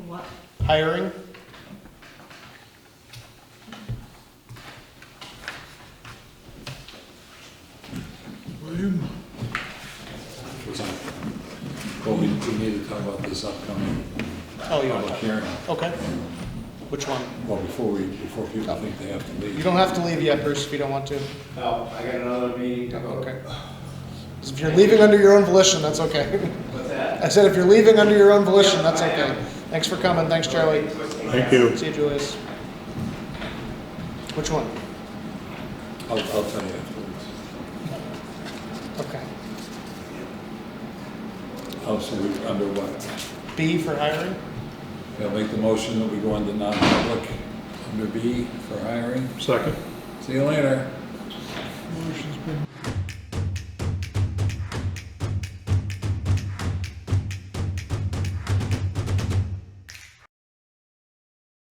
What? hiring. William? was on. Well, we, we need to talk about this upcoming Oh, you want public to- hearing. Okay. Which one? Well, before we, before people think they have to leave. You don't have to leave yet, Bruce, if you don't want to. No, Oh, I got another meeting. Okay. 'Cause If you're leaving under your own volition, that's okay. What's that? I said if you're leaving under your own volition, that's okay. Thanks for coming. Thanks, Charlie. Thank you. See you, Julius. Which one? I'll, I'll tell you afterwards. Okay. Oh, so we, under what? B for hiring? I'll make the motion that we go into non-public, under B for hiring. Second. See you later. Motion's been